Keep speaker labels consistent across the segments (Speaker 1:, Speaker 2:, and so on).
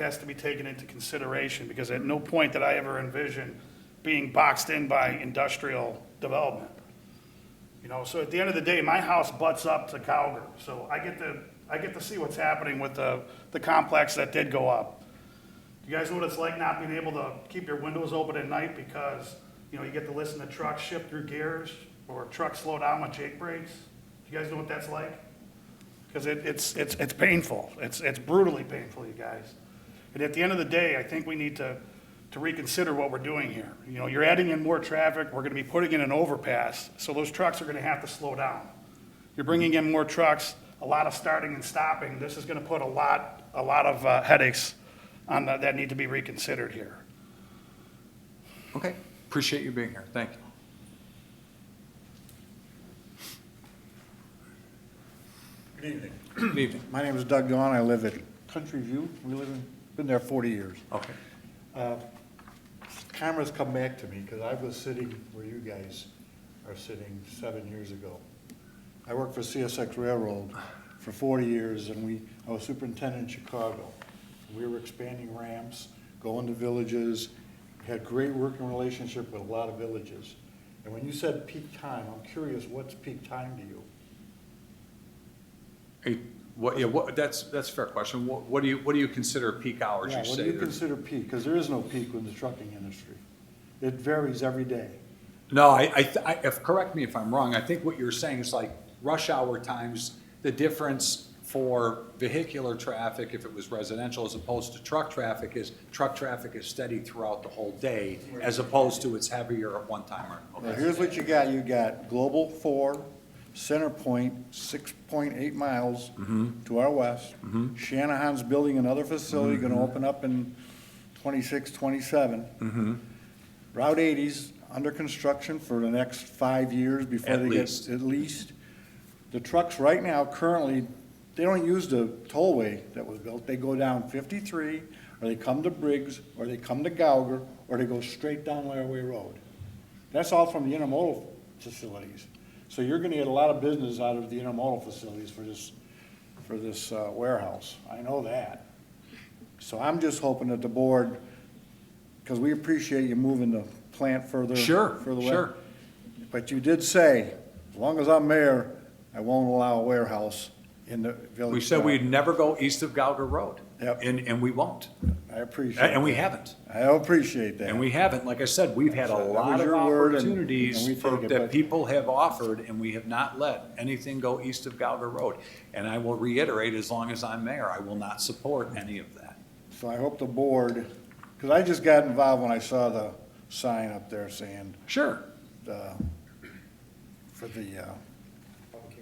Speaker 1: has to be taken into consideration, because at no point did I ever envision being boxed in by industrial development. You know, so at the end of the day, my house butts up to Calgary, so I get to, I get to see what's happening with the, the complex that did go up. You guys know what it's like not being able to keep your windows open at night because, you know, you get to listen to trucks shift through gears, or trucks slow down with jake brakes? You guys know what that's like? because it, it's, it's, it's painful. It's, it's brutally painful, you guys. And at the end of the day, I think we need to, to reconsider what we're doing here. You know, you're adding in more traffic, we're gonna be putting in an overpass, so those trucks are gonna have to slow down. You're bringing in more trucks, a lot of starting and stopping, this is gonna put a lot, a lot of uh, headaches on, the- that need to be reconsidered here.
Speaker 2: Okay, appreciate you being here, thank you.
Speaker 3: Good evening.
Speaker 2: Good evening.
Speaker 3: My name is Doug Gahn. I live at Country View. We live in, been there 40 years.
Speaker 2: Okay,
Speaker 3: Cameras come back to me because I was sitting where you guys are sitting seven years ago. I worked for CSX Railroad for 40 years and we, I was superintendent in Chicago. We were expanding ramps, going to villages, had great working relationship with a lot of villages. And when you said peak time, I'm curious, what's peak time to you?
Speaker 2: Are you- what, yeah, what, that's, that's a fair question, what, what do you, what do you consider peak hours,
Speaker 3: Yeah,
Speaker 2: you
Speaker 3: what
Speaker 2: say?
Speaker 3: do you
Speaker 2: there's-
Speaker 3: consider peak? Because there is no peak in the trucking industry. It varies every day.
Speaker 2: No, I, I, th- I, if, correct me if I'm wrong, I think what you're saying is like rush hour times, the difference for vehicular traffic, if it was residential, as opposed to truck traffic, is truck traffic is steady throughout the whole day, as opposed to it's heavier at one time or.
Speaker 3: Now,
Speaker 2: okay.
Speaker 3: here's what you got. You got Global Four, Center Point, six point eight miles to our west. Shanahan's building another facility, gonna open up in 26, 27. Route 80's under construction for the next five years before
Speaker 2: At
Speaker 3: they get,
Speaker 2: least.
Speaker 3: at least. The trucks right now currently, they don't use the tollway that was built. They go down 53, or they come to Briggs, or they come to Gauger, or they go straight down Laraway Road. That's all from the intermodal facilities. So you're gonna get a lot of business out of the intermodal facilities for this, for this uh, warehouse. I know that. So I'm just hoping that the board, because we appreciate you moving the plant further.
Speaker 2: Sure,
Speaker 3: further west.
Speaker 2: sure.
Speaker 3: But you did say, as long as I'm mayor, I won't allow a warehouse in the village.
Speaker 2: We said
Speaker 3: center."
Speaker 2: we'd never go east of Gauger Road.
Speaker 3: Yep.
Speaker 2: And, and we won't,
Speaker 3: I appreciate.
Speaker 2: and we
Speaker 3: that.
Speaker 2: haven't.
Speaker 3: I appreciate that.
Speaker 2: And we haven't, like I said, we've had a
Speaker 3: That was
Speaker 2: lot of
Speaker 3: your word and- and we
Speaker 2: opportunities for-
Speaker 3: take it,
Speaker 2: that
Speaker 3: but-
Speaker 2: people have offered, and we have not let anything go east of Gauger Road. And I will reiterate, as long as I'm mayor, I will not support any of that.
Speaker 3: So I hope the board, because I just got involved when I saw the sign up there saying,
Speaker 2: Sure,
Speaker 3: uh, for the, uh,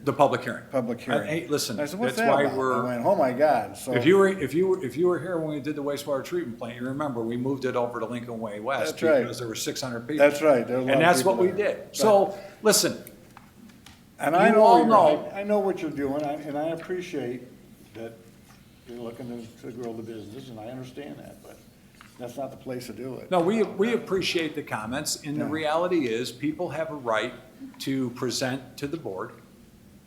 Speaker 2: the public hearing.
Speaker 3: public
Speaker 2: I-
Speaker 3: hearing.
Speaker 2: Hey, listen,
Speaker 3: I
Speaker 2: that's
Speaker 3: said, "What's that
Speaker 2: why
Speaker 3: about?" I
Speaker 2: we're,
Speaker 3: went, oh my God, so.
Speaker 2: if you were, if you, were- if you were here when we did the wastewater treatment plant, you remember, we moved it over to Lincoln Way West.
Speaker 3: That's right.
Speaker 2: Because there were six hundred people.
Speaker 3: That's right, there were a lot
Speaker 2: And
Speaker 3: of
Speaker 2: that's what
Speaker 3: people
Speaker 2: we
Speaker 3: there.
Speaker 2: did. So, listen,
Speaker 3: And I
Speaker 2: You
Speaker 3: know,
Speaker 2: all
Speaker 3: you're-
Speaker 2: know-
Speaker 3: I I know what you're doing, I- and I appreciate that you're looking to- to grow the business, and I understand that, but that's not the place to do it.
Speaker 2: No, we, we appreciate the comments, and the
Speaker 3: Yeah.
Speaker 2: reality is, people have a right to present to the board,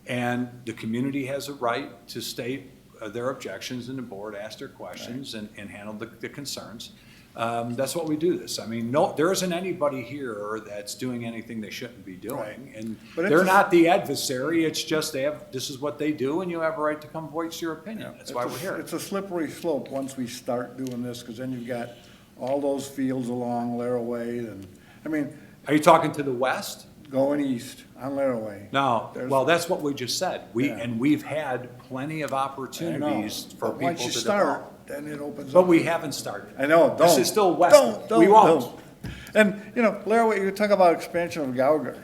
Speaker 2: and the community has a right to state uh, their objections, and the board asked their questions and, and handled the, the concerns. Um, that's what we do this. I mean, no, there isn't anybody here that's doing anything they shouldn't be doing,
Speaker 3: Right.
Speaker 2: and
Speaker 3: But it's
Speaker 2: they're
Speaker 3: a-
Speaker 2: not the adversary, it's just they have, this is what they do, and you have a right to come voice your opinion. That's why
Speaker 3: It's a-
Speaker 2: we're here.
Speaker 3: It's a slippery slope once we start doing this, because then you've got all those fields along Laraway, and, I mean,
Speaker 2: Are you talking to the west?
Speaker 3: going east on Laraway.
Speaker 2: No,
Speaker 3: There's-
Speaker 2: well, that's what we just said. We,
Speaker 3: Yeah.
Speaker 2: and we've had plenty of
Speaker 3: I know,
Speaker 2: opportunities for
Speaker 3: but
Speaker 2: people
Speaker 3: Once you
Speaker 2: to
Speaker 3: start,
Speaker 2: develop.
Speaker 3: then it opens up.
Speaker 2: But we haven't started.
Speaker 3: I know, don't.
Speaker 2: This is still west.
Speaker 3: Don't,
Speaker 2: We
Speaker 3: don't,
Speaker 2: won't.
Speaker 3: don't. And, you know, Laraway, you talk about expansion of Gauger.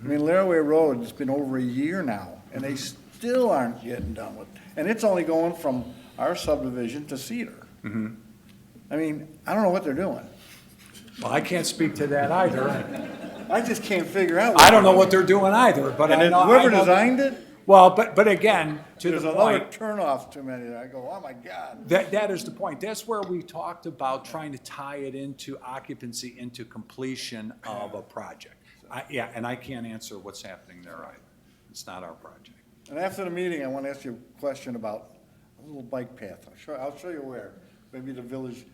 Speaker 3: I mean, Laraway Road, it's been over a year now, and they still aren't getting done with, and it's only going from our subdivision to Cedar.
Speaker 2: Mm-hmm.
Speaker 3: I mean, I don't know what they're doing.
Speaker 2: Well, I can't speak to that either.
Speaker 3: I just can't figure out.
Speaker 2: I don't know what they're doing either, but
Speaker 3: And
Speaker 2: I
Speaker 3: then
Speaker 2: know. I
Speaker 3: whoever
Speaker 2: know-
Speaker 3: designed it,
Speaker 2: Well, but, but again, to
Speaker 3: there's
Speaker 2: the
Speaker 3: another
Speaker 2: point,
Speaker 3: turnoff too many. that I go, oh my God.
Speaker 2: that, that is the point. That's where we talked about trying to tie it into occupancy, into completion of a project. I, yeah, and I can't answer what's happening there either. It's not our project.
Speaker 3: And after the meeting, I want to ask you a question about a little bike path. I'll show, I'll show you where. maybe the village